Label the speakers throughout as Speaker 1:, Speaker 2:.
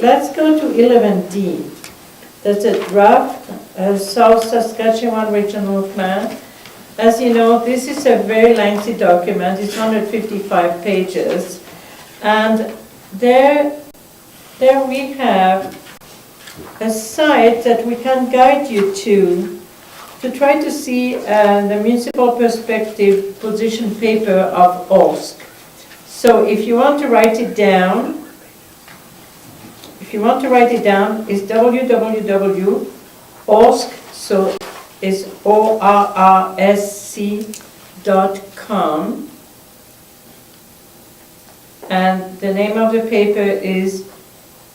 Speaker 1: Let's go to 11D. That's a draft uh, South Saskatchewan Regional Plan. As you know, this is a very lengthy document, it's 155 pages. And there, there we have a site that we can guide you to, to try to see uh, the municipal perspective position paper of OSC. So if you want to write it down, if you want to write it down, it's www.orsk, so it's O-R-R-S-C dot com. And the name of the paper is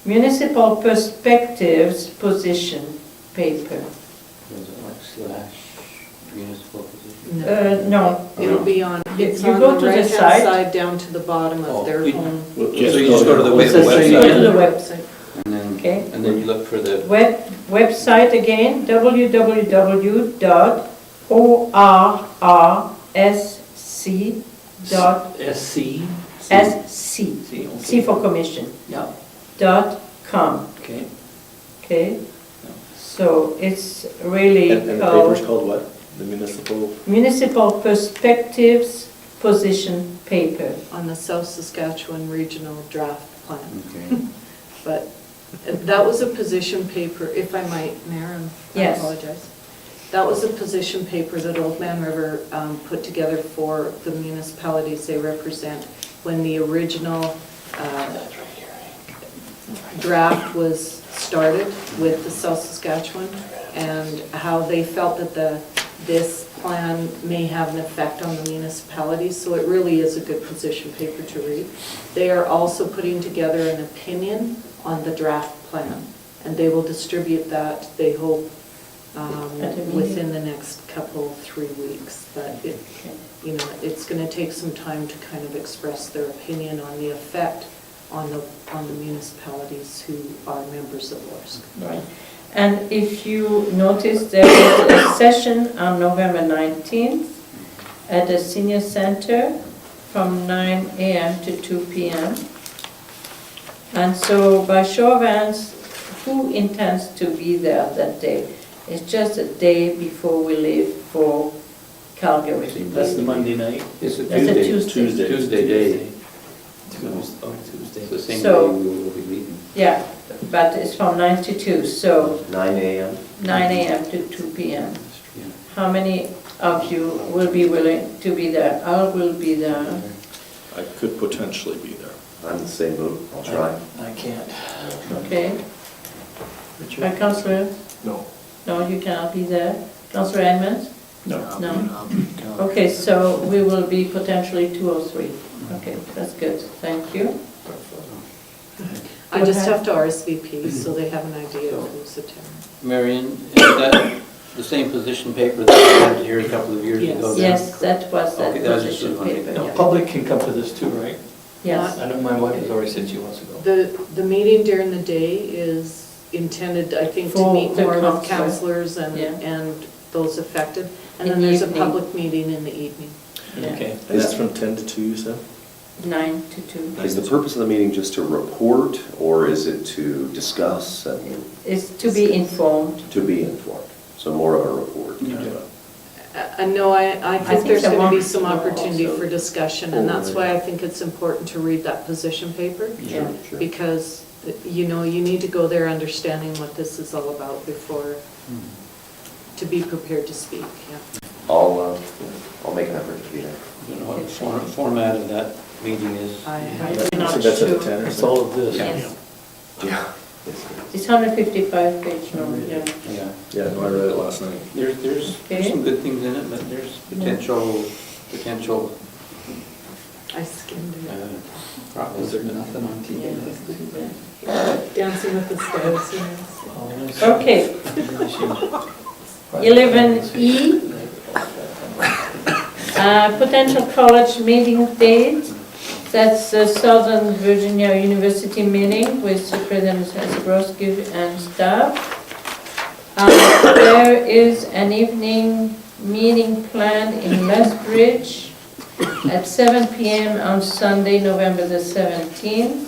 Speaker 1: Municipal Perspectives Position Paper.
Speaker 2: Is it like slash municipal position?
Speaker 1: Uh, no,
Speaker 3: It'll be on, it's
Speaker 1: You
Speaker 3: on
Speaker 1: go
Speaker 3: the
Speaker 1: to the
Speaker 3: right-hand
Speaker 1: site.
Speaker 3: side down to the bottom
Speaker 2: Oh,
Speaker 3: of their
Speaker 2: we-
Speaker 3: home.
Speaker 4: Well,
Speaker 2: So you just go to the
Speaker 1: What's
Speaker 2: web-
Speaker 1: that say? Go
Speaker 2: website?
Speaker 1: to the website.
Speaker 2: And then,
Speaker 1: okay?
Speaker 2: and then you look for the,
Speaker 1: Web, website again, www.orrsc.sc,
Speaker 2: SC? C,
Speaker 1: C
Speaker 2: okay.
Speaker 1: for commission,
Speaker 2: Yeah,
Speaker 1: dot com,
Speaker 2: okay.
Speaker 1: okay? So it's really
Speaker 4: And and the paper's
Speaker 1: called
Speaker 4: called what? The municipal,
Speaker 1: Municipal Perspectives Position Paper.
Speaker 3: on the South Saskatchewan Regional Draft Plan.
Speaker 2: Okay.
Speaker 3: But that was a position paper, if I might, Mayor, I'm- I
Speaker 1: Yes.
Speaker 3: apologize. That was a position paper that Old Man River um, put together for the municipalities they represent when the original uh, draft was started with the South Saskatchewan and how they felt that the, this plan may have an effect on the municipalities. So it really is a good position paper to read. They are also putting together an opinion on the draft plan. And they will distribute that, they hope, um,
Speaker 1: At a meeting.
Speaker 3: within the next couple, three weeks. But it, you know, it's going to take some time to kind of express their opinion on the effect on the, on the municipalities who are members of ORSC.
Speaker 1: Right. And if you notice, there was a session on November 19th at the senior center from 9 AM to 2 PM. And so by show of hands, who intends to be there that day? It's just a day before we leave for Calgary.
Speaker 4: that's the Monday night?
Speaker 2: It's a
Speaker 1: That's a
Speaker 2: Tuesday.
Speaker 1: Tuesday.
Speaker 4: Tuesday.
Speaker 2: Tuesday day.
Speaker 4: Tuesday. Oh,
Speaker 2: It's the
Speaker 4: Tuesday.
Speaker 2: same day
Speaker 1: So-
Speaker 2: we will be meeting.
Speaker 1: Yeah, but it's from 9 to 2, so
Speaker 4: Nine AM.
Speaker 1: 9 AM to 2 PM.
Speaker 2: Yeah.
Speaker 1: How many of you will be willing to be there? I will be there.
Speaker 4: I could potentially be there.
Speaker 5: I'm the same boat, I'll try.
Speaker 6: I can't.
Speaker 1: Okay. Uh, Councillor,
Speaker 4: No.
Speaker 1: no, you cannot be there. Councillor Edmonds?
Speaker 4: No.
Speaker 1: No? Okay, so we will be potentially two or three. Okay, that's good, thank you.
Speaker 3: I just
Speaker 1: Okay.
Speaker 3: have to RSVP, so they have an idea of who's attending.
Speaker 2: Marion, is that the same position paper that we had here a couple of years
Speaker 3: Yes.
Speaker 2: ago? then?
Speaker 1: Yes, that was that
Speaker 2: Okay, that was just
Speaker 1: position
Speaker 2: one.
Speaker 1: paper,
Speaker 2: No.
Speaker 1: yeah.
Speaker 6: Public can come to this too, right?
Speaker 1: yes.
Speaker 6: I know my wife has already said she wants to go.
Speaker 3: The, the meeting during the day is intended, I think, to
Speaker 1: For
Speaker 3: meet
Speaker 1: the
Speaker 3: more with
Speaker 1: council.
Speaker 3: counselors and,
Speaker 1: Yeah.
Speaker 3: and those affected. And
Speaker 1: In
Speaker 3: then
Speaker 1: the
Speaker 3: there's a
Speaker 1: evening.
Speaker 3: public meeting in the evening.
Speaker 1: yeah.
Speaker 6: Okay.
Speaker 4: And that's from ten to two, you said?
Speaker 1: Nine to two.
Speaker 5: Is the purpose of the meeting just to report, or is it to discuss and
Speaker 1: It's to be informed.
Speaker 5: to be informed? So more of a report. kind of a-
Speaker 3: Uh, I I know, I, I
Speaker 1: think
Speaker 3: think there's
Speaker 1: the
Speaker 3: going to be
Speaker 1: marks
Speaker 3: some
Speaker 1: will
Speaker 3: opportunity
Speaker 1: also-
Speaker 3: for discussion, and that's why I think it's important to read that position paper.
Speaker 1: Yeah.
Speaker 5: Sure.
Speaker 3: Because, you know, you need to go there understanding what this is all about before, to be prepared to speak, yeah.
Speaker 5: I'll, uh, I'll make an effort to be there.
Speaker 2: You know what the for- format of that meeting is?
Speaker 3: I
Speaker 1: I'm
Speaker 3: have
Speaker 1: not
Speaker 4: So that's at the
Speaker 1: sure.
Speaker 4: ten or
Speaker 6: It's
Speaker 4: something?
Speaker 6: all of this.
Speaker 1: Yes.
Speaker 5: Yeah.
Speaker 1: It's 155 page number, yeah.
Speaker 2: Yeah.
Speaker 4: Yeah, no, I read it last night.
Speaker 2: There, there's there's some good things in it, but there's potential, potential
Speaker 3: I skimmed
Speaker 2: uh,
Speaker 3: it.
Speaker 2: problems. There's nothing on
Speaker 1: Yeah.
Speaker 3: Dancing with the Stars, you know.
Speaker 1: Okay. 11E, E. uh, potential college meeting date. That's the Southern Virginia University meeting with President Zabrowski and staff. Uh, There is an evening meeting planned in Lethbridge at 7 PM on Sunday, November the 17th.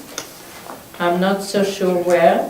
Speaker 1: I'm not so sure where.